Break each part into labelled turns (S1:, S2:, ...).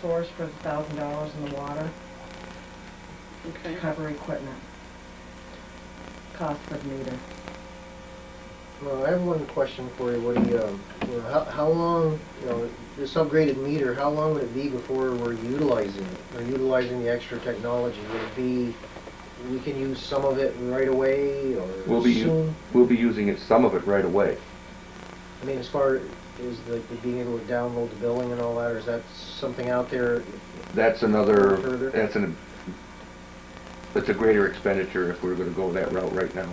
S1: source for thousand dollars in the water to
S2: Okay,
S1: cover equipment. Cost of meter.
S3: Well, I have one question for you, Woody. Um, you know, how, how long, you know, this upgraded meter, how long would it be before we're utilizing it? Or utilizing the extra technology? Would it be, we can use some of it right away or
S4: We'll be, u-
S3: soon?
S4: we'll be using it, some of it right away.
S3: I mean, as far as the, the being able to download the billing and all that, or is that something out there?
S4: That's another,
S3: Further?
S4: that's an, that's a greater expenditure if we're gonna go that route right now.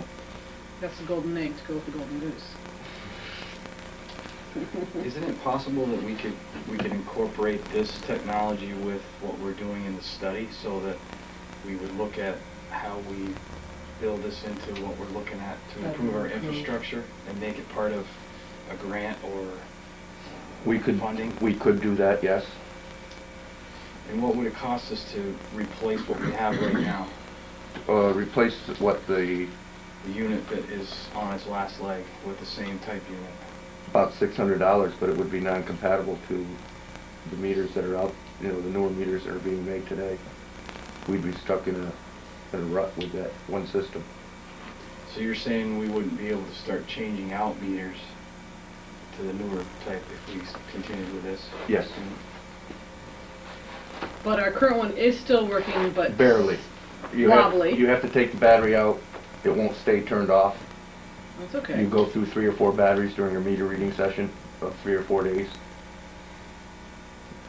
S2: that's the golden egg to go with the golden goose.
S5: Isn't it possible that we could, we could incorporate this technology with what we're doing in the study so that we would look at how we build this into what we're looking at to improve our infrastructure and make it part of a grant or
S4: We could,
S5: funding?
S4: we could do that, yes.
S5: And what would it cost us to replace what we have right now?
S4: Uh, replace what the,
S5: The unit that is on its last leg with the same type unit?
S4: about six hundred dollars, but it would be non-compatible to the meters that are out, you know, the newer meters that are being made today. We'd be stuck in a, in a rut with that one system.
S5: So you're saying we wouldn't be able to start changing out meters to the newer type if we s- continued with this?
S4: Yes.
S2: But our current one is still working, but.
S4: Barely. You have-
S2: Wobbly.
S4: You have to take the battery out, it won't stay turned off,
S2: That's okay.
S4: You go through three or four batteries during your meter reading session of three or four days,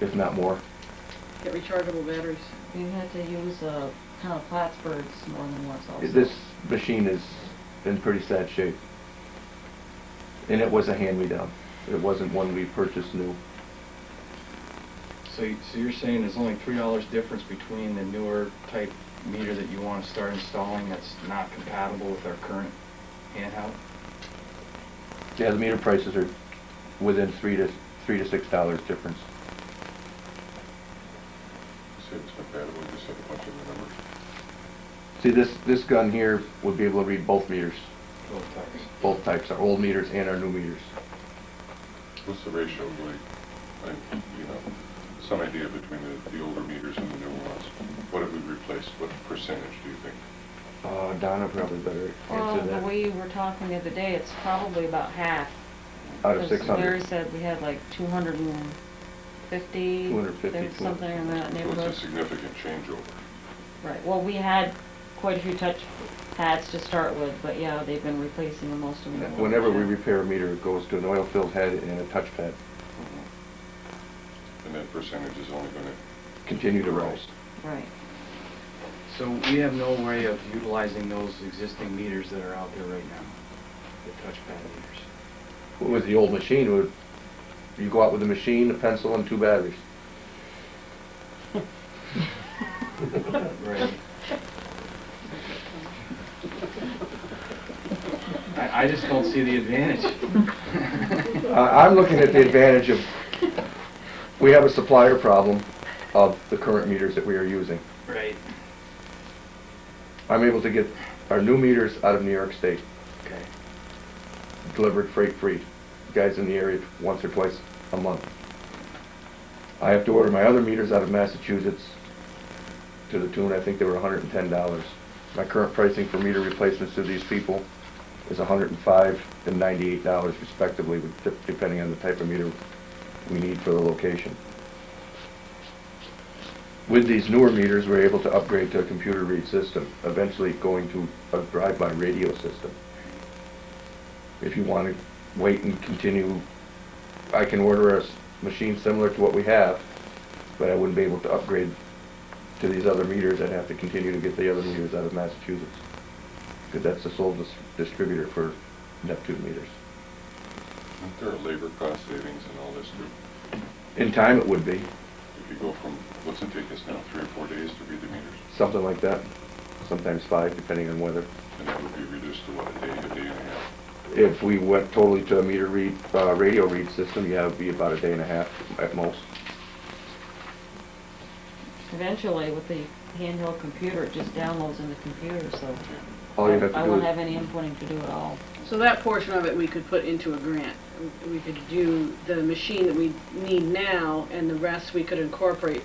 S4: if not more.
S2: Get rechargeable batteries.
S6: You had to use uh, kind of Plattsburgh's more than once also.
S4: This machine is in pretty sad shape. And it was a hand-me-down. It wasn't one we purchased new.
S5: So, y- so you're saying there's only three dollars difference between the newer type meter that you want to start installing that's not compatible with our current handheld?
S4: Yeah, the meter prices are within three to, three to six dollars difference.
S7: Seems compatible, you just had a bunch of the numbers.
S4: See, this, this gun here would be able to read both meters,
S5: Both types.
S4: both types, our old meters and our new meters.
S7: What's the ratio, like, like, you know, some idea between the, the older meters and the newer ones? What have we replaced, what percentage do you think?
S4: Uh, Donna probably better
S6: Well,
S4: answer
S6: the way
S4: that.
S6: you were talking the other day, it's probably about half.
S4: Out of
S6: 'cause
S4: six
S6: Larry
S4: hundred.
S6: said we had like 250.
S4: 250,
S6: there's
S4: 200.
S6: Something in that
S7: So
S6: neighborhood.
S7: It's a significant changeover.
S6: Right, well, we had quite a few touch pads to start with, but yeah, they've been replacing the most of them.
S4: Whenever we repair a meter, it goes to an oil-filled head and a touchpad.
S6: Mm-hmm.
S7: And that percentage is only gonna,
S4: continue to rise.
S6: Right.
S5: So we have no way of utilizing those existing meters that are out there right now, the touchpad meters.
S4: With the old machine, would, you go out with a machine, a pencil, and two batteries.
S5: Right. I, I just don't see the advantage.
S4: I, I'm looking at the advantage of, we have a supplier problem of the current meters that we are using.
S5: Right.
S4: I'm able to get our new meters out of New York State,
S5: Okay.
S4: delivered freight-free. Guys in the area once or twice a month. I have to order my other meters out of Massachusetts to the tune, I think they were hundred and ten dollars. My current pricing for meter replacements to these people is hundred and five and ninety-eight dollars respectively, with- de- depending on the type of meter we need for the location. With these newer meters, we're able to upgrade to a computer read system, eventually going to a drive-by radio system. If you want to wait and continue, I can order a s- machine similar to what we have, but I wouldn't be able to upgrade to these other meters. I'd have to continue to get the other meters out of Massachusetts, because that's the sole dis- distributor for Neptune meters.
S7: aren't there are labor cost savings and all this too?
S4: In time, it would be,
S7: If you go from, what's it take us now, three or four days to read the meters?
S4: something like that, sometimes five, depending on weather.
S7: And that would be reduced to what, a day, a day and a half?
S4: If we went totally to a meter read, uh, radio read system, yeah, it'd be about a day and a half at most.
S6: Eventually, with the handheld computer, it just downloads in the computer, so.
S4: All you have to
S6: I
S4: do
S6: won't
S4: is-
S6: have any inputting to do at all.
S2: So that portion of it we could put into a grant. We could do the machine that we need now, and the rest we could incorporate